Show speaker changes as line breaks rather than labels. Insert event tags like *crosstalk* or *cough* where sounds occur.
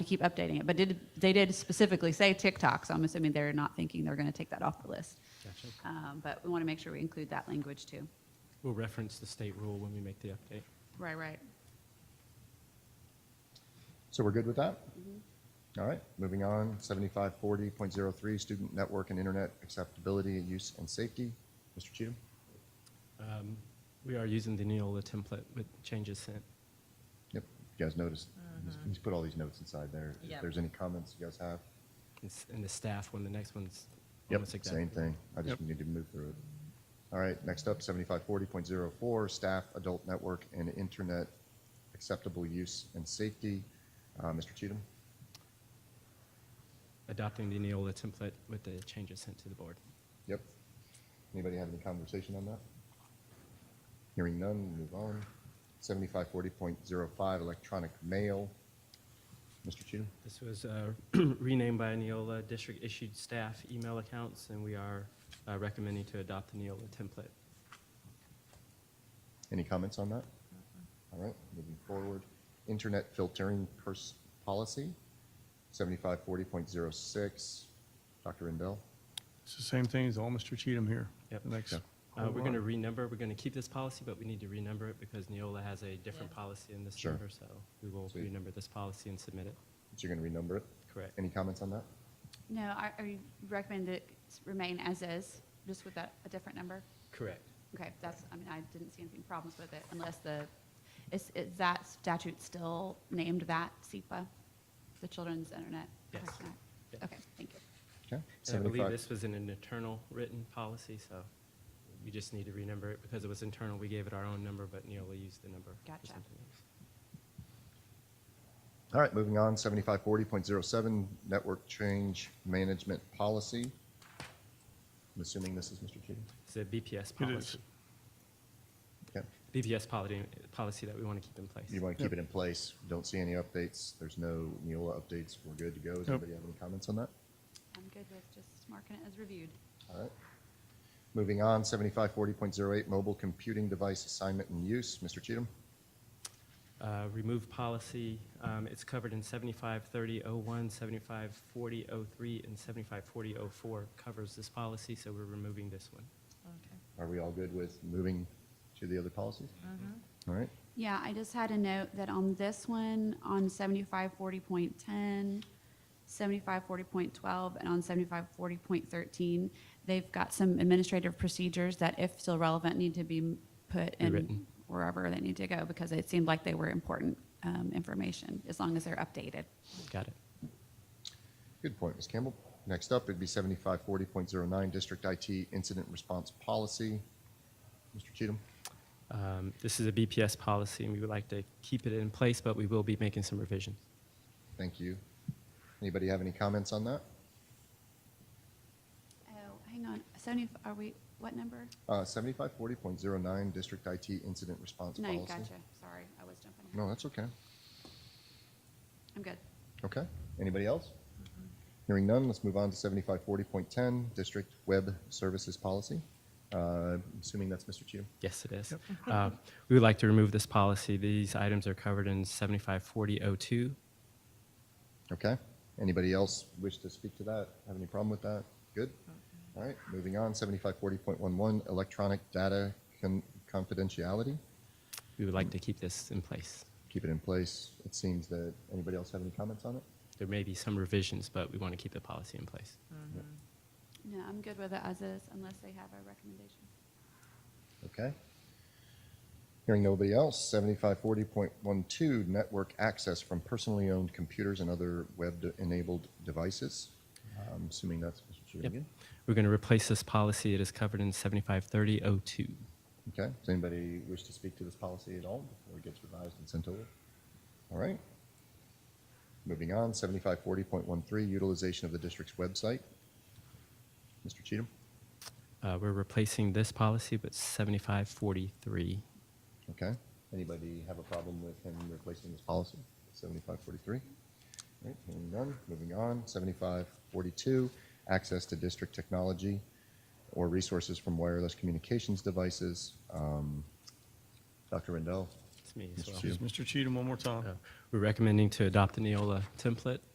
we keep updating it. But did, they did specifically say TikTok, so I'm assuming they're not thinking they're going to take that off the list.
Gotcha.
Um, But we want to make sure we include that language too.
We'll reference the state rule when we make the update.
Right, right.
So we're good with that? All right, moving on, seventy-five forty point zero three, student network and internet acceptability, use and safety. Mr. Cheatham?
Um, we are using the Neola template with changes sent.
Yep, you guys noticed, he's- he's put all these notes inside there. If
Yep.
there's any comments you guys have?
It's- And the staff, when the next one's
Yep,
almost exactly.
same thing. I just
Yep.
need to move through it. All right, next up, seventy-five forty point zero four, staff, adult network and internet acceptable use and safety. Uh, Mr. Cheatham?
Adopting the Neola template with the changes sent to the board.
Yep. Anybody have any conversation on that? Hearing none, move on. Seventy-five forty point zero five, electronic mail. Mr. Cheatham?
This was uh, *clears throat* renamed by Neola district issued staff email accounts, and we are uh, recommending to adopt the Neola template.
Any comments on that? All right, moving forward. Internet filtering pers- policy, seventy-five forty point zero six. Dr. Rendell?
It's the same thing as all Mr. Cheatham here.
Yep.
The next.
Yeah.
Uh,
whole
we're going to
lot.
renumber, we're going to keep this policy, but we need to renumber it because Neola has a different
Yeah.
policy in this
Sure.
number, so we will
Sweet.
renumber this policy and submit it.
So you're gonna renumber it?
Correct.
Any comments on that?
No, I, I recommend that it remain as is, just with that, a different number.
Correct.
Okay, that's, I mean, I didn't see anything problems with it unless the, is, is that statute still named that SEPA? The Children's Internet
Yes.
Protection Act?
Yeah.
Okay, thank you.
Okay.
And I believe
75
this was in an internal written policy, so we just need to renumber it because it was internal. We gave it our own number, but Neola used the number. for
Gotcha.
something else.
All right, moving on, seventy-five forty point zero seven, network change management policy. I'm assuming this is Mr. Cheatham.
It's a BPS
It
policy.
is.
Okay,
BPS policy, policy that we want to keep in place.
you want to keep it in place, don't see any updates, there's no Neola updates, we're good to go. Does
Nope.
anybody have any comments on that?
I'm good with just marking it as reviewed.
All right. Moving on, seventy-five forty point zero eight, mobile computing device assignment and use, Mr. Cheatham.
Uh, Remove policy, um, it's covered in 753001, 754003, and 754004 covers this policy, so we're removing this one.
Okay.
Are we all good with moving to the other policies? All right,
Yeah, I just had a note that on this one, on seventy-five forty point ten, seventy-five forty point twelve, and on seventy-five forty point thirteen, they've got some administrative procedures that if still relevant, need to be put in
Rewritten.
wherever they need to go, because it seemed like they were important, um, information, as long as they're updated.
Got it.
good point, Ms. Campbell. Next up, it'd be seventy-five forty point zero nine, district IT incident response policy. Mr. Cheatham?
Um, This is a BPS policy, and we would like to keep it in place, but we will be making some revisions.
Thank you. Anybody have any comments on that?
Oh, hang on, seventy, are we, what number?
Uh, seventy-five forty point zero nine, district IT incident response policy.
Nine, gotcha, sorry, I was jumping ahead.
No, that's okay.
I'm good.
Okay. Anybody else? Hearing none, let's move on to seventy-five forty point ten, district web services policy. Uh, assuming that's Mr. Cheatham.
Yes, it is. Uh, We would like to remove this policy. These items are covered in 754002.
Okay. Anybody else wish to speak to that? Have any problem with that? Good. All right, moving on, seventy-five forty point one one, electronic data con- confidentiality.
We would like to keep this in place.
Keep it in place. It seems that, anybody else have any comments on it?
There may be some revisions, but we want to keep the policy in place.
No, I'm good with it as is, unless they have a recommendation.
Okay. Hearing nobody else, seventy-five forty point one two, network access from personally owned computers and other web-enabled devices. I'm assuming that's Mr. Cheatham
Yep.
again.
We're going to replace this policy. It is covered in 753002.
Okay, does anybody wish to speak to this policy at all before it gets revised and sent over? All right. Moving on, seventy-five forty point one three, utilization of the district's website. Mr. Cheatham?
Uh, We're replacing this policy with 7543.
Okay. Anybody have a problem with him replacing this policy? Seventy-five forty-three? All right, hearing none, moving on. Seventy-five forty-two, access to district technology or resources from wireless communications devices. Um, Dr. Rendell?
It's me as well.
It's Mr. Cheatham one more time.
Uh, We're recommending to adopt the Neola template